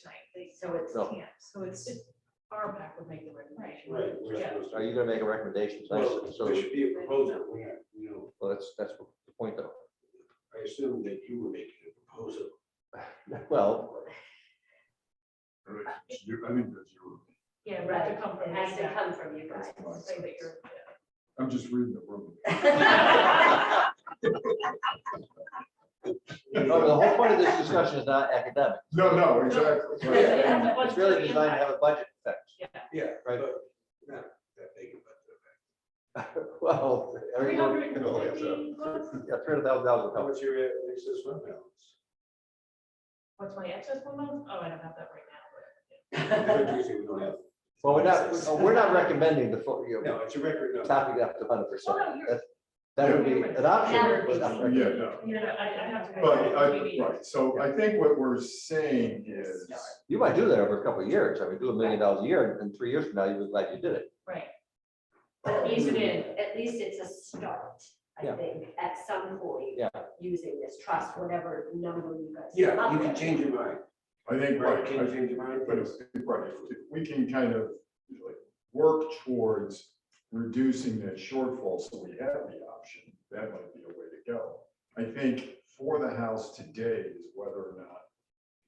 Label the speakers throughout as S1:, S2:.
S1: tonight,
S2: So it's,
S3: No.
S2: yeah,
S1: so it's, our pack would make the recommendation.
S4: Right. we're
S1: Yeah.
S4: supposed to-
S3: Are you gonna make a recommendation?
S4: Well,
S3: So,
S4: there should be a proposal, we're not, you know,
S3: well, that's, that's the point though.
S4: I assume that you were making a proposal.
S3: Well,
S5: You- I mean, that's your,
S1: Yeah,
S2: right,
S1: right, to come
S2: it
S1: from
S2: has to
S1: that.
S2: come from you guys, so that you're.
S5: I'm just reading the room.
S3: no, Oh, the whole point of this discussion is not academic.
S5: No, no, exactly. right.
S1: Yeah, but what's
S3: It's really
S1: the
S3: designed to
S1: impact?
S3: have a budget effect.
S4: Yeah,
S3: Right.
S4: but Not that big of a.
S3: Well,
S1: Three
S3: everyone,
S1: hundred and
S5: No, it's, uh,
S1: fifty bucks?
S3: yeah, three hundred thousand dollars
S4: How
S3: help.
S4: much your uh, excess fund balance?
S1: What's my excess one month? Oh, I don't have that right now.
S4: What you say we don't have?
S3: Well, we're not, oh, we're not recommending the, full, you know,
S4: No, it's a record number.
S3: topping it up to hundred percent.
S1: Well, no, you're-
S3: That would be an option. but not
S5: Yeah,
S3: recommended.
S5: no,
S1: You know, I, I have to.
S5: but I, right, so I think what we're saying is,
S3: You might do that over a couple of years. I mean, do a million dollars a year and in three years from now, you'd be glad you did it.
S1: Right,
S2: At least it, at least it's a start, I
S3: Mm-hmm. Yeah.
S2: think, at some point.
S3: Yeah.
S2: Using this trust, whatever number you guys. come
S4: Yeah,
S2: up
S4: you can
S2: with.
S4: change your mind.
S5: I think,
S4: Right,
S5: right,
S4: can you change your mind?
S5: but if, right, if we can kind of like work towards reducing that shortfall, so we have the option, that might be a way to go. I think for the house today is whether or not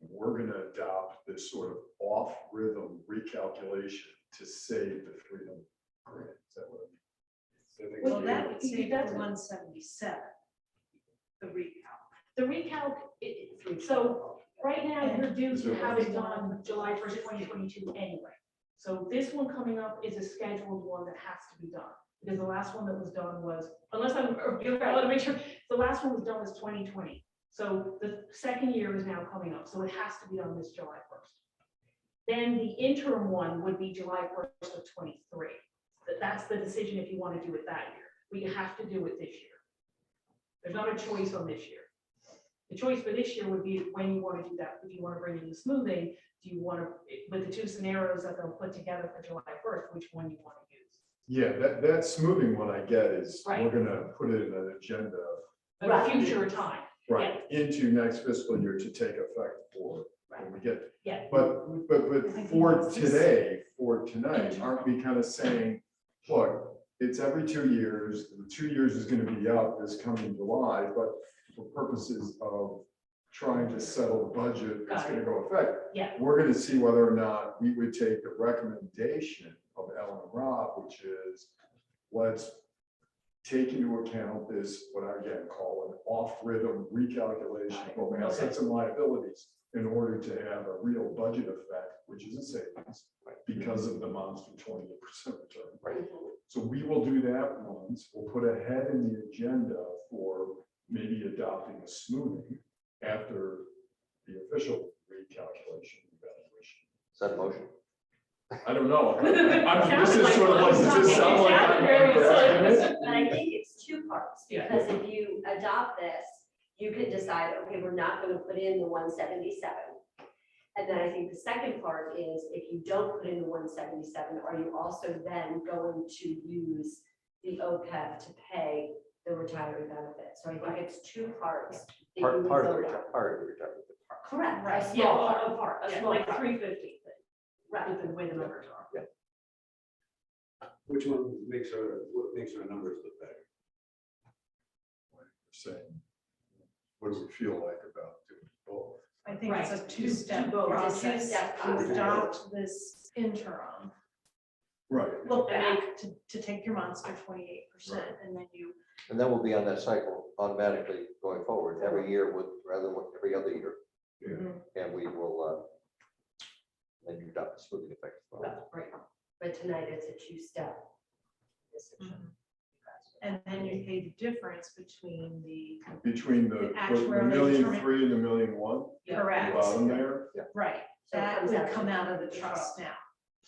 S5: we're gonna adopt this sort of off-rhythm recalculation to save the freedom grant. Is that what?
S1: well, that would
S2: That's
S1: save
S2: the
S1: one seventy-seven. The recalc, the recalc, it, it- so right now, you're due to have it done July first, twenty twenty-two anyway. So this one coming up is a scheduled one that has to be done, because the last one that was done was, unless I'm, I want to make sure, the last one was done was twenty twenty. So the second year is now coming up, so it has to be done this July first. Then the interim one would be July first of twenty-three. That- That's the decision if you want to do it that year. We have to do it this year. There's not a choice on this year. The choice for this year would be when you want to do that. If you want to bring in the smoothing, do you want to, with the two scenarios that they'll put together for July first, which one you want to use?
S5: Yeah, that, that smoothing one I get is, we're
S1: Right.
S5: gonna put it in an agenda,
S1: At a
S2: Right.
S1: future time.
S5: right, into next fiscal year to take effect for, when we get
S1: Yeah.
S5: But, but,
S1: I
S5: but
S1: think
S5: for
S1: that's just-
S5: today, for tonight, aren't we kind of saying, look, it's every two years, the two years is gonna be out this coming July, but for purposes of trying to settle the budget, it's
S1: Got it.
S5: gonna go effect.
S1: Yeah.
S5: We're gonna see whether or not we would take the recommendation of Ellen Rob, which is, let's take into account this, what I again call an off-rhythm recalculation of both assets and liabilities in order to have a real budget effect, which is a savings because of the monster twenty-eight percent return.
S2: Mhm.
S5: So we will do that once. We'll put a head in the agenda for maybe adopting a smoothing after the official recalculation evaluation.
S3: Is that a motion?
S5: I don't know. I'm- This is sort of like, this is sound like.
S1: It sounded very serious.
S2: But I think it's two parts,
S1: Yeah.
S2: because if you adopt this, you could decide, okay, we're not gonna put in the one seventy-seven. And then I think the second part is, if you don't put in the one seventy-seven, are you also then going to use the OPEB to pay the retiree benefit? So I think it's two parts. that you
S3: Part,
S2: would
S3: part of the,
S2: vote on.
S3: retire- part of the retirement.
S2: Correct, a
S1: Yeah,
S2: small part,
S1: well, a part,
S2: a
S1: yeah,
S2: small
S1: like
S2: part.
S1: three fifty,
S2: right.
S1: with the way the numbers are.
S4: Which one makes our, what makes our numbers look better?
S5: Saying, what do we feel like about doing both?
S6: I think it's a
S1: Right.
S6: two-step
S1: Two-step
S6: process
S2: process.
S6: to adopt this interim.
S5: Right.
S6: Look
S1: And
S6: back to, to take your monster twenty-eight percent and then you,
S3: And then we'll be on that cycle automatically going forward, every year with, rather than what- every other year.
S6: Mhm.
S3: And we will, uh, then you've got the smoothing effect. as well.
S2: Well, right. But tonight it's a two-step.
S1: Mm-hmm.
S2: decision.
S6: and then you pay the difference between the,
S5: Between
S6: The
S5: the, the
S6: actuarial
S5: million
S6: determined-
S5: three and the million one,
S1: Yeah.
S5: the
S6: correct,
S5: bottom there.
S6: right,
S2: So it
S6: that
S2: comes
S6: would
S2: out
S6: come
S2: to-
S6: out of the trust now.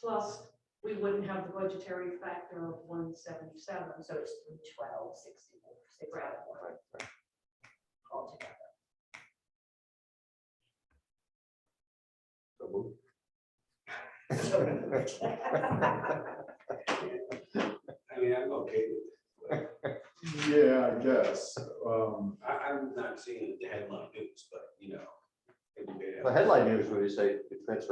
S1: Plus, we wouldn't have the budgetary factor of one seventy-seven,
S2: So it's three twelve, sixty-four, six out of one
S3: Right, right.
S2: altogether.
S3: So move.
S4: I mean, I'm okay with it.
S6: Mm-hmm.
S5: Yeah, I guess, um,
S4: I, I'm not seeing the headline news, but you know, every day.
S3: The headline news, where you say, you transfer